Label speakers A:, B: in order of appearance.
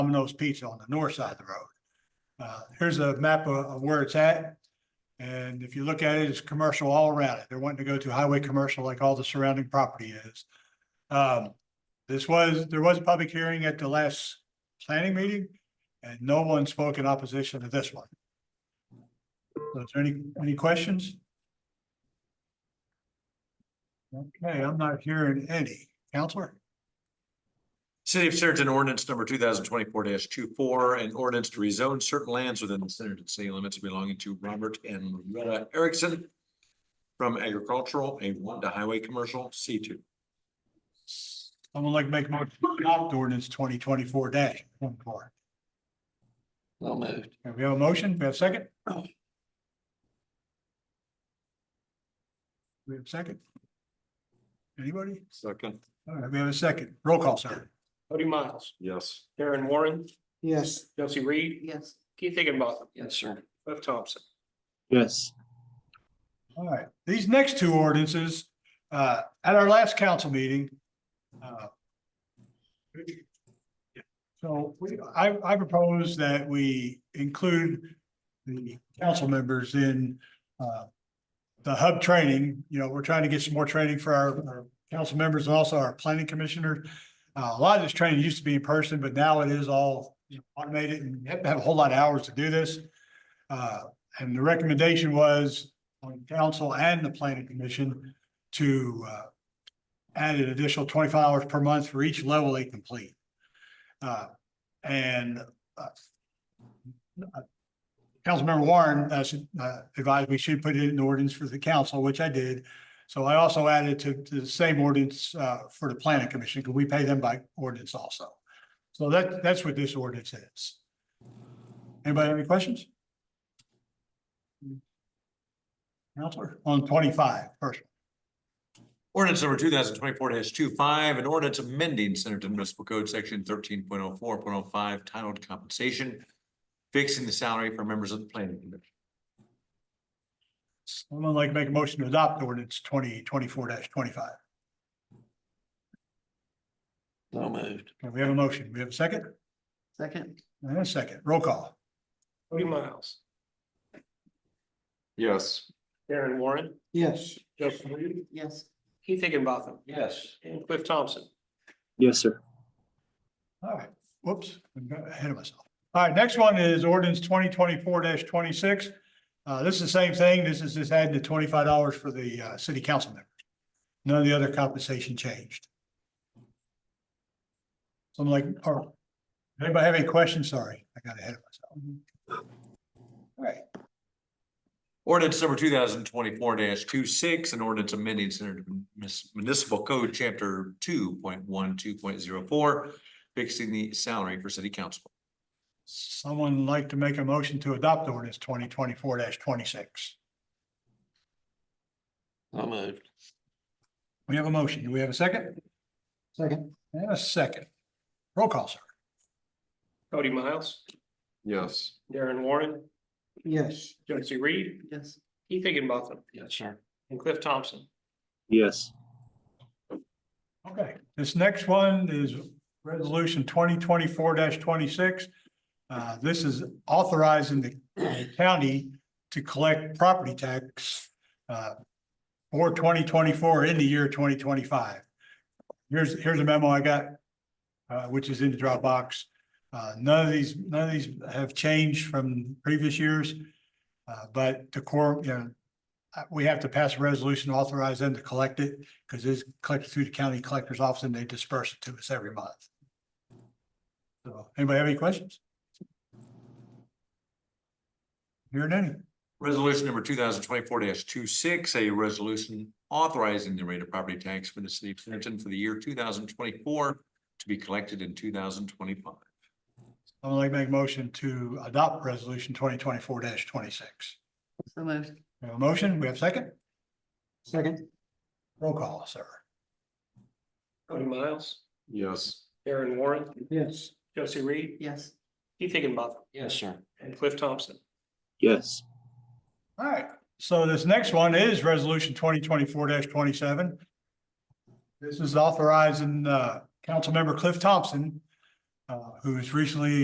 A: Domino's Pizza on the north side of the road. Uh, here's a map of, of where it's at. And if you look at it, it's commercial all around it. They're wanting to go to highway commercial like all the surrounding property is. Um, this was, there was a public hearing at the last planning meeting and no one spoke in opposition to this one. So is there any, any questions? Okay, I'm not hearing any. Counselor?
B: City of Centerton ordinance number two thousand twenty-four 24 an ordinance to rezone certain lands within the Centerton city limits belonging to Robert and Loretta Erickson from agricultural, A one to highway commercial, C two.
A: Someone like to make more adopt ordinance twenty twenty-four dash one four.
C: Well moved.
A: We have a motion, we have a second? We have a second? Anybody?
B: Second.
A: All right, we have a second. Roll call, sir.
D: Cody Miles,
B: Yes.
D: Karen Warren,
C: Yes.
D: Josie Reed,
E: Yes.
D: Keith Higginbotham,
C: Yes, sir.
D: Cliff Thompson.
C: Yes.
A: All right, these next two ordinances, uh, at our last council meeting. uh, So we, I, I propose that we include the council members in, uh, the hub training, you know, we're trying to get some more training for our, our council members and also our planning commissioners. Uh, a lot of this training used to be in person, but now it is all you know, automated and you have to have a whole lot of hours to do this. Uh, and the recommendation was on council and the planning commission to uh, add an additional twenty-five hours per month for each level they complete. Uh, And uh, uh, Councilmember Warren uh, should, uh, advised we should put it in ordinance for the council, which I did. So I also added to to the same ordinance uh, for the planning commission because we pay them by ordinance also. So that, that's what this ordinance is. Anybody have any questions? Counselor, on twenty-five, first.
B: Ordinance number two thousand twenty-four 25 an ordinance amending Centerton Municipal Code Section thirteen point oh four point oh five titled compensation, fixing the salary for members of the planning commission.
A: Someone like to make a motion to adopt ordinance twenty twenty-four twenty-five.
C: So moved.
A: Okay, we have a motion. We have a second?
E: Second?
A: And a second. Roll call.
D: Cody Miles,
B: Yes.
D: Karen Warren,
C: Yes.
D: Josie Reed,
E: Yes.
D: Keith Higginbotham,
C: Yes.
D: and Cliff Thompson.
C: Yes, sir.
A: All right, whoops, I got ahead of myself. All right, next one is ordinance twenty twenty-four twenty-six. Uh, this is the same thing. This is just adding the twenty-five dollars for the, uh, city council members. None of the other compensation changed. Someone like, or, anybody have any questions? Sorry, I got ahead of myself. All right,
B: Ordinance number two thousand twenty-four 26 an ordinance amending Center Municipal Code, Chapter two point one, two point zero four, fixing the salary for city council.
A: Someone like to make a motion to adopt ordinance twenty twenty-four twenty-six.
C: So moved.
A: We have a motion. Do we have a second?
C: Second.
A: And a second. Roll call, sir.
D: Cody Miles,
B: Yes.
D: Darren Warren,
C: Yes.
D: Josie Reed,
E: Yes.
D: Keith Higginbotham,
C: Yes, sir.
D: and Cliff Thompson.
C: Yes.
A: Okay, this next one is resolution twenty twenty-four twenty-six. Uh, this is authorizing the county to collect property tax uh, for twenty twenty-four in the year twenty twenty-five. Here's, here's a memo I got, uh, which is in the Dropbox. Uh, none of these, none of these have changed from previous years. Uh, but the core, you know, uh, we have to pass a resolution to authorize them to collect it because it's collected through the county collector's office and they disperse it to us every month. So, anybody have any questions? Hearing any?
B: Resolution number two thousand twenty-four 26 a resolution authorizing the rate of property tax for the city of Centerton for the year two thousand twenty-four to be collected in two thousand twenty-five.
A: I would like to make a motion to adopt resolution twenty twenty-four twenty-six.
E: So moved.
A: We have a motion, we have a second,
C: Second.
A: roll call, sir.
D: Cody Miles,
B: Yes.
D: Darren Warren,
C: Yes.
D: Josie Reed,
E: Yes.
D: Keith Higginbotham,
C: Yes, sir.
D: and Cliff Thompson.
C: Yes.
A: All right, so this next one is resolution twenty twenty-four twenty-seven. This is authorizing, uh, Councilmember Cliff Thompson uh, uh, who's recently